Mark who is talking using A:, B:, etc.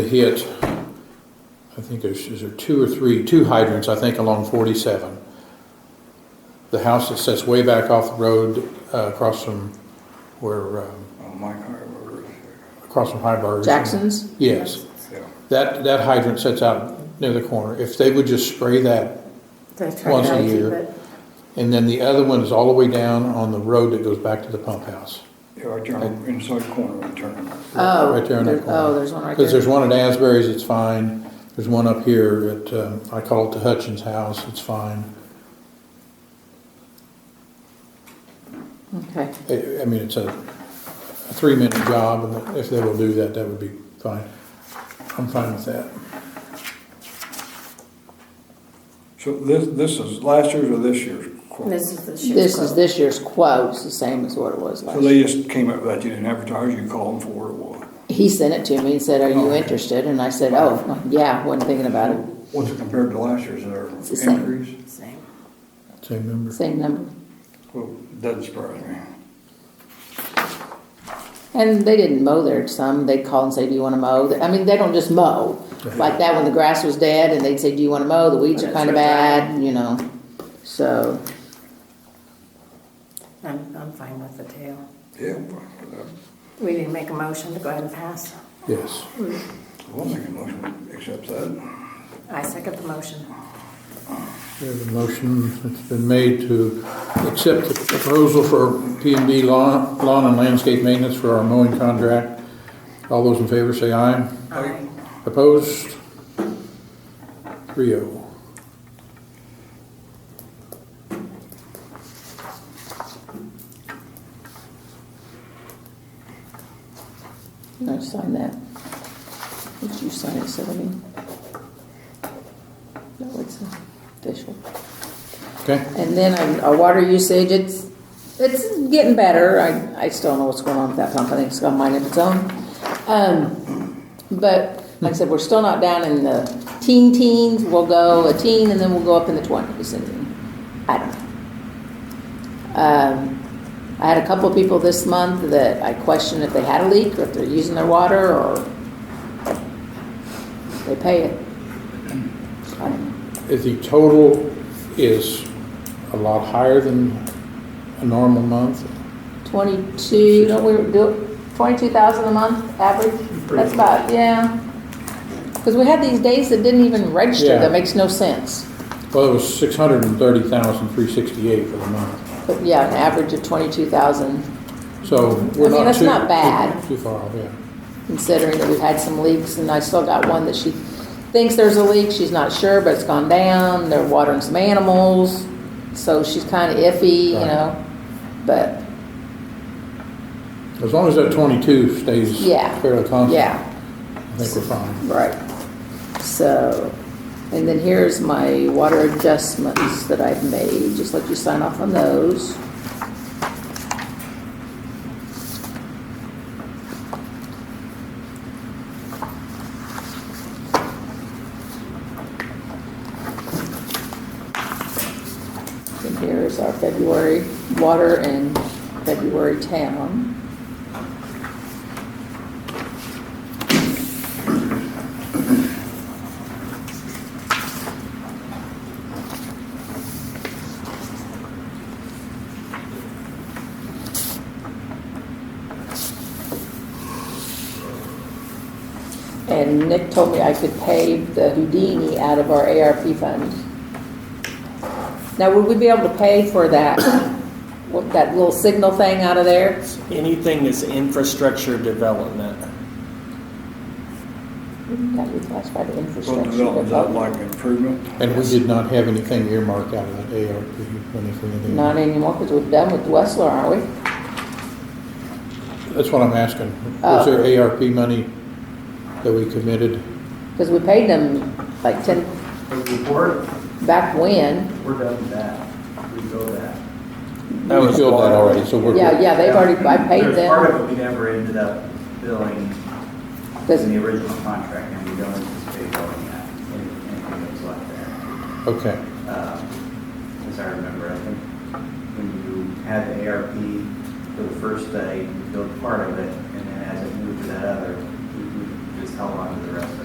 A: hit, I think there's, is there two or three, two hydrants, I think, along forty-seven. The house that sits way back off the road, uh, across from, where, um,
B: on Oh, my harbor.
A: across from Highburg.
C: Jackson's?
A: Yes,
B: So,
A: that, that hydrant sits out near the corner. If they would just spray that once a year. And then the other one is all the way down on the road that goes back to the pump house.
B: yeah, I turn inside corner and turn.
C: Oh.
A: Right there in that
C: there-
A: corner.
C: Oh, there's one right
A: Because there's
C: there.
A: one at Asbury's, it's fine. There's one up here at, um, I call it the Hutchins House, it's fine.
C: Okay,
A: I I mean, it's a a three-minute job, and if they will do that, that would be fine. I'm fine with that.
B: So this, this is last year's or this year's quote?
D: This is the ship's
C: this is
D: quote.
C: this year's quote, it's the same as what it was last
B: So
C: year.
B: they just came up with that, you didn't advertise, you called them for it, what?
C: He sent it to me and said, are
B: Oh,
C: you
B: okay.
C: interested? And I said, oh, yeah, wasn't thinking about it,
B: What's it compared to last year's, or
C: It's the same.
B: increase?
D: Same.
A: Same number.
C: same number.
B: Well, doesn't surprise me.
C: And they didn't mow there some, they'd call and say, do you wanna mow? I mean, they don't just mow, like that when the grass was dead and they'd say, do you wanna mow? The weeds are
D: That's
C: kinda
D: right.
C: bad, you know, so,
D: I'm, I'm fine with the tail.
B: Yeah, uh, I'm fine with that.
D: We need to make a motion to go ahead and pass.
A: Yes.
B: I'll make a motion, to accept that.
D: I second the motion.
A: There's a motion that's been made to accept the proposal for P and B lawn, lawn and landscape maintenance for our mowing contract. All those in favor say aye.
D: Aye.
A: Opposed? Three oh.
C: no, sign that. Did you sign it, Sylvia? No, it's official.
A: Okay,
C: And then um, our water usage, it's, it's getting better. I, I still don't know what's going on with that pump. I think it's got mine of its own. Um, but like I said, we're still not down in the teen teens. We'll go a teen and then we'll go up in the twenties and I don't know. Um, I had a couple of people this month that I questioned if they had a leak or if they're using their water or they pay it. So I don't know.
A: if the total is a lot higher than a normal month,
C: 22, don't we do, 22,000 a month average? That's about, yeah. Because we had these days that didn't even register,
A: Yeah.
C: that makes no sense.
A: well, it was six hundred and thirty thousand, three sixty-eight for the month.
C: But yeah, an average of 22,000,
A: So
C: I
A: we're
C: mean,
A: not too.
C: that's not bad.
A: Too far off, yeah.
C: considering that we've had some leaks, and I still got one that she thinks there's a leak, she's not sure, but it's gone down, they're watering some animals, so she's kind of iffy, you
A: Right.
C: know? But,
A: As long as that twenty-two stays
C: Yeah.
A: fairly constant.
C: yeah.
A: I think we're fine.
C: Right. So, and then here's my water adjustments that I've made, just let you sign off on those. And here's our February water and February town. And Nick told me I could pay the Houdini out of our ARP fund. Now, would we be able to pay for that, what, that little signal thing out of there?
E: Anything that's infrastructure development.
C: That would classify the
B: Well,
C: infrastructure.
B: development, is that
C: development.
B: like improvement?
A: And we did not have anything earmarked out of that ARP, anything in there.
C: Not anymore, because we're done with Westler, aren't we?
A: That's what I'm asking. Was
C: Oh.
A: there ARP money that we committed?
C: Because we paid them like ten,
F: The report,
C: back when.
F: we're done with that. We go that.
E: That
A: We
E: was
A: filled that
E: water.
A: already, so we're.
C: Yeah, yeah, they've already, I paid
F: There's part
C: them.
F: of it we never ended up billing
C: Does-
F: in the original contract, and we don't anticipate billing that, and- and things like that.
A: Okay,
F: Um, As I remember, I think when you had the ARP for the first day, you billed part of it, and then as it moved to that other, we we just held on to the rest of